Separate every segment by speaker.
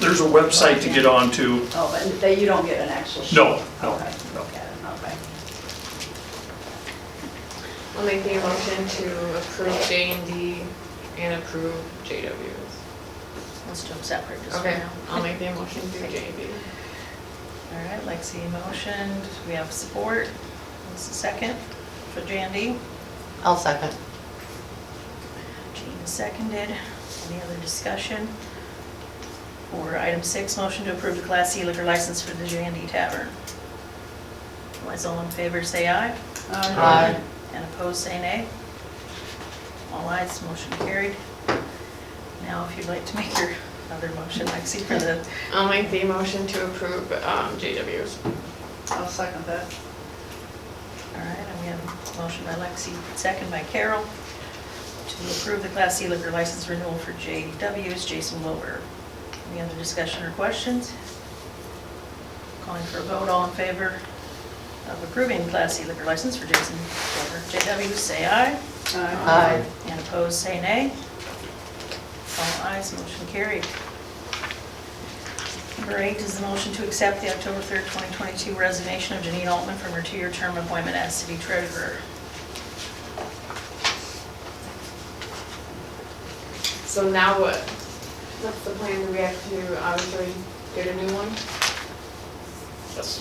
Speaker 1: there's a website to get onto.
Speaker 2: Oh, but they- you don't get an actual sheet?
Speaker 1: No, no,
Speaker 2: Okay,
Speaker 1: no.
Speaker 2: okay, okay.
Speaker 3: I'll make the motion to approve J and D and approve JWs.
Speaker 4: Let's do them separate just for
Speaker 3: Okay,
Speaker 4: now.
Speaker 3: I'll make the motion to J and D.
Speaker 4: All right, Lexi motioned, we have support. What's the second for Jandy?
Speaker 5: I'll second.
Speaker 4: Jean seconded. Any other discussion? For item six, motion to approve the Class C liquor license for the Jandy Tavern. Otherwise, all in favor, say aye.
Speaker 5: Aye.
Speaker 4: And opposed, say nay. All ayes, motion carried. Now, if you'd like to make your other motion, Lexi, for the,
Speaker 3: I'll make the motion to approve um, JWs.
Speaker 2: I'll second that.
Speaker 4: all right, and we have a motion by Lexi, second by Carol, to approve the Class C liquor license renewal for JW's Jason Wilbur. Any other discussion or questions? Calling for a vote, all in favor of approving Class C liquor license for Jason Wilbur, JW, say aye.
Speaker 5: Aye.
Speaker 4: And opposed, say nay. All ayes, motion carried. Number eight is the motion to accept the October 3rd, 2022 resignation of Janine Altman from her two-year term appointment as city treasurer.
Speaker 3: So now what? What's the plan? Do we have to obviously get a new one?
Speaker 1: Yes.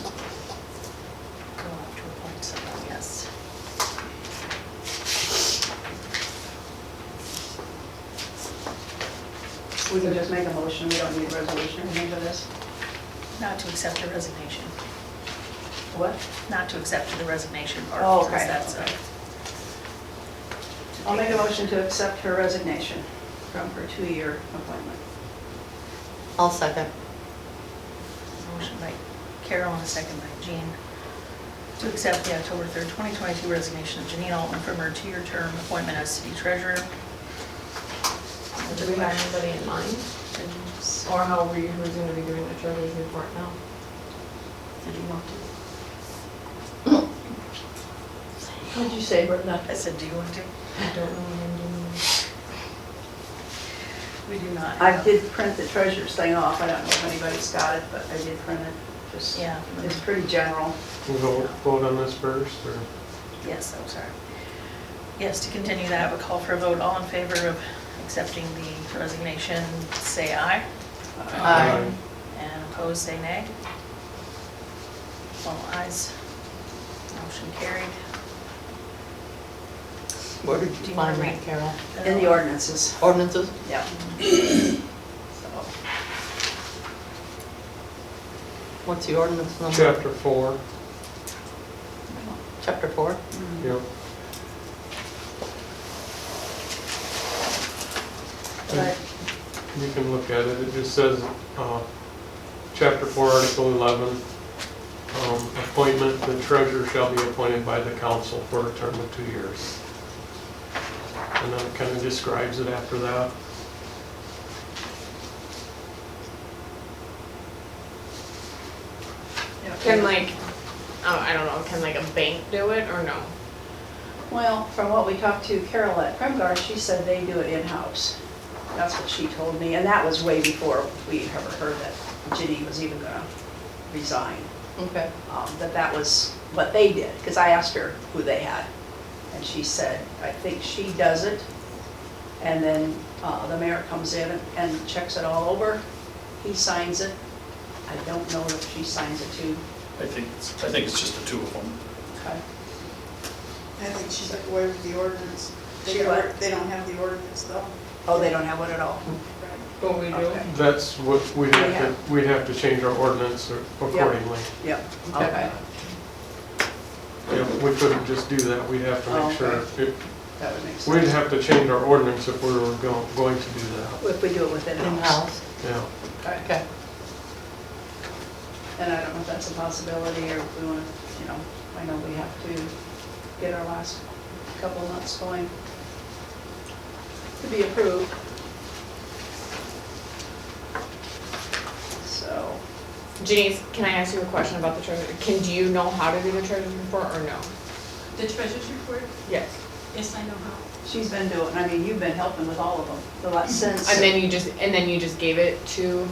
Speaker 4: Go up to appoint someone, yes.
Speaker 2: We can just make a motion, we don't need a resolution or anything for this.
Speaker 4: Not to accept the resignation,
Speaker 2: What?
Speaker 4: not to accept the resignation part.
Speaker 2: Oh,
Speaker 4: since
Speaker 2: okay,
Speaker 4: that's a-
Speaker 2: okay. I'll make a motion to accept her resignation from her two-year appointment.
Speaker 5: I'll second.
Speaker 4: Motion by Carol and a second by Jean to accept the October 3rd, 2022 resignation of Janine Altman from her two-year term appointment as city treasurer.
Speaker 3: Do we have anybody in mind? Or how we, who's gonna be doing the treasurer's report now?
Speaker 4: Did you want to?
Speaker 2: What did you say, Brenda?
Speaker 4: I said, do you want to?
Speaker 3: I don't know what I'm doing.
Speaker 4: We do not.
Speaker 2: I did print the treasurer's thing off, I don't know if anybody's got it, but I did print it, just,
Speaker 4: Yeah.
Speaker 2: it's pretty general.
Speaker 6: We'll go vote on this first, or?
Speaker 4: Yes, I'm sorry. Yes, to continue that, we call for a vote. All in favor of accepting the resignation, say aye.
Speaker 5: Aye.
Speaker 6: uh,
Speaker 4: And opposed, say nay. All ayes. Motion carried.
Speaker 5: Where did
Speaker 4: Do
Speaker 5: you
Speaker 4: you
Speaker 5: find
Speaker 4: wanna
Speaker 5: that,
Speaker 4: read?
Speaker 5: Carol?
Speaker 2: In the ordinances,
Speaker 5: Ordinances?
Speaker 2: yeah.
Speaker 4: Mm-hmm.
Speaker 2: So,
Speaker 5: What's the ordinance number?
Speaker 6: Chapter four,
Speaker 5: Chapter four?
Speaker 6: yep.
Speaker 2: But
Speaker 6: You can look at it, it just says, uh, chapter four, article eleven, um, appointment, the treasurer shall be appointed by the council for a term of two years. And then it kind of describes it after that.
Speaker 3: Can like, oh, I don't know, can like a bank do it or no?
Speaker 2: Well, from what we talked to Carol at Premgar, she said they do it in-house. That's what she told me, and that was way before we ever heard that Ginny was even gonna resign.
Speaker 5: Okay.
Speaker 2: Um, But that was what they did, because I asked her who they had. And she said, I think she does it, and then uh, the mayor comes in and checks it all over. He signs it. I don't know if she signs it too.
Speaker 1: I think, it's- I think it's just the two of them.
Speaker 7: I think she took away with the ordinance. They
Speaker 2: She
Speaker 7: got-
Speaker 2: what?
Speaker 7: They don't have the ordinance though.
Speaker 2: Oh, they don't have one at all?
Speaker 3: What we do?
Speaker 2: Okay.
Speaker 6: That's what we'd
Speaker 2: We
Speaker 6: have
Speaker 2: have-
Speaker 6: to, we'd have to change our ordinance or- accordingly.
Speaker 2: Yep.
Speaker 3: Okay.
Speaker 6: Yeah, We couldn't just do that, we'd have to
Speaker 2: Oh,
Speaker 6: make sure, it-
Speaker 2: That would make sense.
Speaker 6: we'd have to change our ordinance if we were go- going to do that,
Speaker 2: If we do it within house.
Speaker 5: In-house?
Speaker 6: yeah.
Speaker 2: Okay.
Speaker 5: Okay.
Speaker 2: And I don't know if that's a possibility or if we want to, you know, I know we have to get our last couple months going to be approved. So,
Speaker 3: Janice, can I ask you a question about the treasurer? Can, do you know how to do the treasurer's report or no?
Speaker 8: The treasurer's report,
Speaker 3: Yes.
Speaker 8: yes, I know how.
Speaker 2: she's been doing, I mean, you've been helping with all of them the last since.
Speaker 3: And then you just, and then you just gave it to